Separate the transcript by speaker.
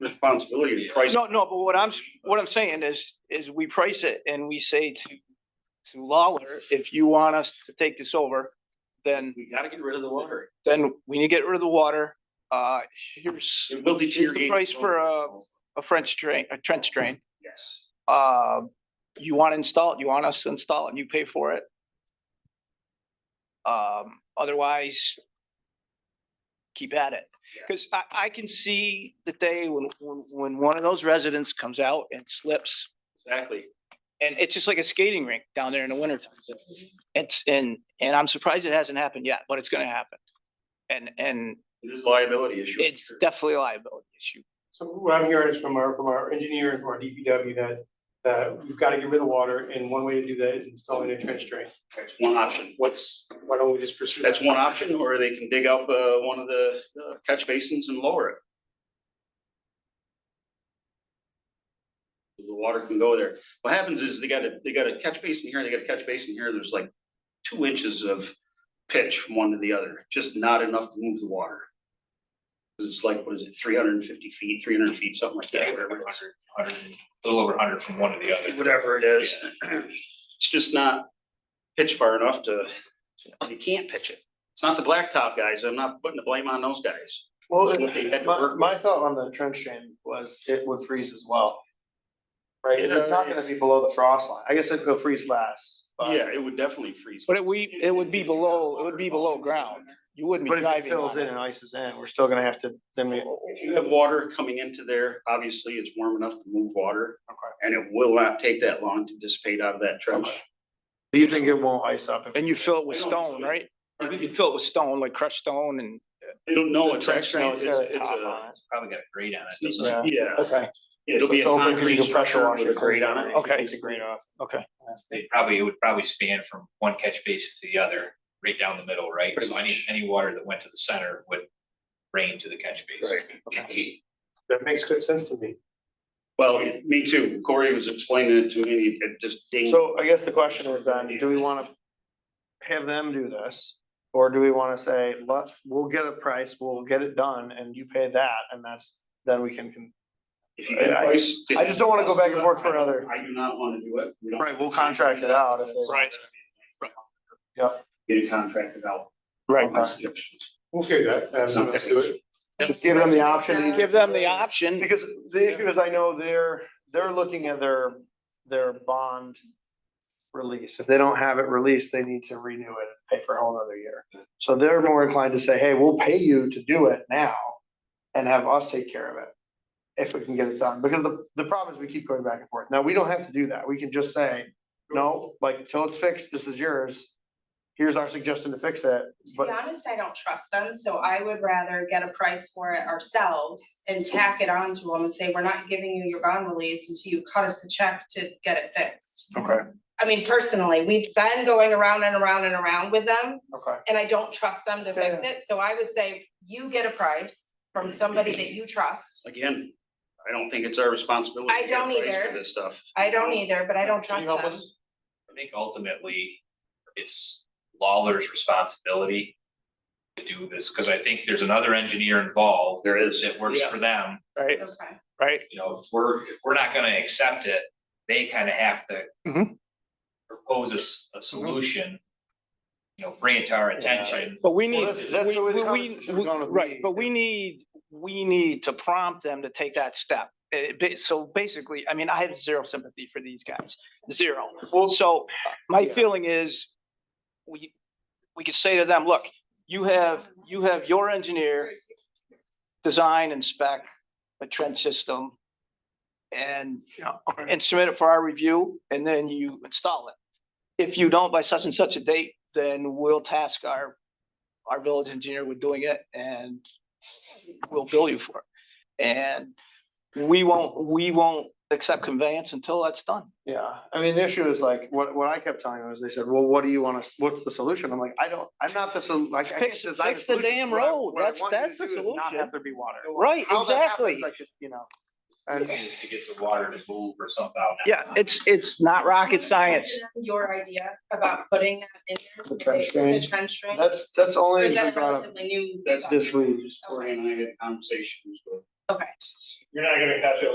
Speaker 1: responsibility to price.
Speaker 2: No, no, but what I'm, s- what I'm saying is, is we price it and we say to, to Lawler, if you want us to take this over, then,
Speaker 1: We gotta get rid of the lottery.
Speaker 2: then we need to get rid of the water. Uh, here's
Speaker 1: It will
Speaker 2: the
Speaker 1: deteriorate.
Speaker 2: price for uh, a- a French drain, a trench drain.
Speaker 1: Yes.
Speaker 2: Uh, you want to install it, you want us to install it, and you pay for it. Um, otherwise, keep at it.
Speaker 1: Yeah.
Speaker 2: Because I, I can see the day when, when, when one of those residents comes out and slips
Speaker 1: Exactly.
Speaker 2: and it's just like a skating rink down there in the wintertime. It's, and, and I'm surprised it hasn't happened yet, but it's gonna happen. And, and
Speaker 1: It is a liability issue.
Speaker 2: it's definitely a liability issue.
Speaker 3: So what I'm hearing is from our, from our engineer and from our DPW that, that we've got to get rid of water and one way to do that is installing a trench drain.
Speaker 1: That's one option. What's,
Speaker 3: Why don't we just pursue?
Speaker 1: that's
Speaker 3: that?
Speaker 1: one option, or they can dig up, uh, one of the uh, catch basins and lower it. The water can go there. What happens is they got a, they got a catch basin here, and they got a catch basin here, there's like two inches of pitch from one to the other, just not enough to move the water. 'Cause it's like, what is it, three hundred and fifty feet, three hundred feet, something like that. whatever it is.
Speaker 4: hundred, a little over hundred from one to the other.
Speaker 1: whatever it is. It's just not pitch far enough to, you can't pitch it. It's not the blacktop guys. I'm not putting the blame on those guys.
Speaker 5: Well,
Speaker 1: What they had to
Speaker 5: my,
Speaker 1: work
Speaker 5: my thought on the trench drain was it would freeze as well. Right, and it's not
Speaker 1: Yeah.
Speaker 5: gonna be below the frost line, I guess it'll freeze less,
Speaker 1: with.
Speaker 5: but.
Speaker 1: Yeah, it would definitely freeze.
Speaker 2: But it we, it would be below, it would be below ground. You wouldn't be
Speaker 5: But if it
Speaker 2: driving
Speaker 5: fills
Speaker 2: on
Speaker 5: in
Speaker 2: it.
Speaker 5: and ices in, we're still gonna have to, then we,
Speaker 1: If you have water coming into there, obviously it's warm enough to move water.
Speaker 5: Okay.
Speaker 1: And it will not take that long to dissipate out of that trench.
Speaker 5: Okay. do you think it won't ice up? if-
Speaker 2: And you fill it with
Speaker 1: I don't
Speaker 2: stone,
Speaker 1: know.
Speaker 2: right? You could fill it with stone, like crushed stone and
Speaker 1: They don't know
Speaker 5: The
Speaker 1: it's
Speaker 5: trench
Speaker 1: actually,
Speaker 5: drain,
Speaker 1: it's,
Speaker 5: it's got a
Speaker 1: it's
Speaker 5: top
Speaker 1: a,
Speaker 5: on it.
Speaker 4: Probably got a grade on it, doesn't it?
Speaker 5: Yeah,
Speaker 1: yeah,
Speaker 5: okay.
Speaker 1: it'll be a
Speaker 5: So open, 'cause you
Speaker 1: concrete
Speaker 5: can pressure
Speaker 1: structure
Speaker 5: wash
Speaker 1: with a
Speaker 5: it.
Speaker 1: grate on it.
Speaker 2: Okay.
Speaker 5: Take the grate off.
Speaker 2: Okay.
Speaker 4: They probably, it would probably span from one catch basin to the other, right down the middle, right?
Speaker 1: Pretty
Speaker 4: So any,
Speaker 1: much.
Speaker 4: any water that went to the center would rain to the catch basin.
Speaker 3: That makes good sense to me.
Speaker 1: Well, me too. Corey was explaining it to me. It just dinged.
Speaker 5: So I guess the question was then, do we wanna have them do this? Or do we wanna say, look, we'll get a price, we'll get it done, and you pay that, and that's, then we can, con-
Speaker 1: If you get a
Speaker 5: I-
Speaker 1: price.
Speaker 5: I just don't wanna go back and forth for another-
Speaker 1: I do not wanna do it. We don't-
Speaker 5: right, we'll contract it out if they.
Speaker 2: Right.
Speaker 5: Yep.
Speaker 1: Get it contracted out. My suggestion.
Speaker 3: We'll figure that.
Speaker 1: It's
Speaker 3: Um,
Speaker 1: not
Speaker 3: let's do it.
Speaker 5: Just give them the option. to
Speaker 2: give them the option.
Speaker 5: Because the issue is, I know they're, they're looking at their, their bond release. If they don't have it released, they need to renew it and pay for a whole other year. So they're more inclined to say, hey, we'll pay you to do it now and have us take care of it if we can get it done. Because the, the problem is we keep going back and forth. Now, we don't have to do that. We can just say, no, like, till it's fixed, this is yours. Here's our suggestion to fix it,
Speaker 6: To
Speaker 5: but
Speaker 6: be honest, I don't trust them, so I would rather get a price for it ourselves and tack it on to them and say, we're not giving you your bond release until you cut us a check to get it fixed.
Speaker 5: okay,
Speaker 6: I mean, personally, we've been going around and around and around with them,
Speaker 5: okay.
Speaker 6: and I don't trust them to fix
Speaker 5: Yeah.
Speaker 6: it, so I would say you get a price from somebody that you trust.
Speaker 1: Again, I don't think it's our responsibility.
Speaker 6: I
Speaker 1: to get a
Speaker 6: don't
Speaker 1: price for
Speaker 6: either.
Speaker 1: This stuff.
Speaker 6: I don't either, but I don't
Speaker 3: Can
Speaker 6: trust
Speaker 3: you help
Speaker 6: them.
Speaker 3: us?
Speaker 4: I think ultimately, it's Lawler's responsibility to do this, because I think there's another engineer involved.
Speaker 1: There is.
Speaker 4: That works for them.
Speaker 2: Right,
Speaker 6: Okay,
Speaker 2: right.
Speaker 4: you know, if we're, if we're not gonna accept it, they kind of have to
Speaker 1: Mm-hmm.
Speaker 2: Mhm.
Speaker 4: propose a, s- a solution, you know, bring it to our attention.
Speaker 2: But we
Speaker 5: Well,
Speaker 2: need,
Speaker 5: that's- that's
Speaker 2: we,
Speaker 5: the way the
Speaker 2: we- we,
Speaker 5: conversation was going with
Speaker 2: right,
Speaker 5: me.
Speaker 2: but we need, we need to prompt them to take that step. Eh, ba- so basically, I mean, I have zero sympathy for these guys, zero.
Speaker 5: Well,
Speaker 2: So my
Speaker 5: Uh, Yeah.
Speaker 2: feeling is, we, we could say to them, look, you have, you have your engineer design and spec a trench system and,
Speaker 5: Yeah, okay.
Speaker 2: and submit it for our review, and then you install it. If you don't by such and such a date, then we'll task our, our village engineer with doing it, and we'll bill you for it. And we won't, we won't accept conveyance until that's done.
Speaker 5: Yeah, I mean, the issue is like, what, what I kept telling them is they said, well, what do you want us, what's the solution? I'm like, I don't, I'm not the sol- like. I can't
Speaker 2: Fix-
Speaker 5: design a
Speaker 2: fix the
Speaker 5: solution.
Speaker 2: damn
Speaker 5: What I-
Speaker 2: road.
Speaker 5: what I
Speaker 2: That's-
Speaker 5: want you to
Speaker 2: that's the
Speaker 5: do is Not
Speaker 2: solution.
Speaker 5: have there be water.
Speaker 2: Right,
Speaker 5: How that happens,
Speaker 2: exactly.
Speaker 5: I could, You know.
Speaker 4: Is
Speaker 5: And
Speaker 4: to get the water to move or somehow.
Speaker 2: Yeah, it's, it's not rocket science.
Speaker 6: Your idea about putting that in there.
Speaker 5: The trench drain.
Speaker 6: The trench drain.
Speaker 5: that's, that's only
Speaker 6: Or is
Speaker 5: we
Speaker 6: that
Speaker 5: brought up
Speaker 6: relatively new?
Speaker 1: That's
Speaker 5: this week.
Speaker 1: Corey and I had conversations with
Speaker 7: Okay.
Speaker 1: You're not gonna catch it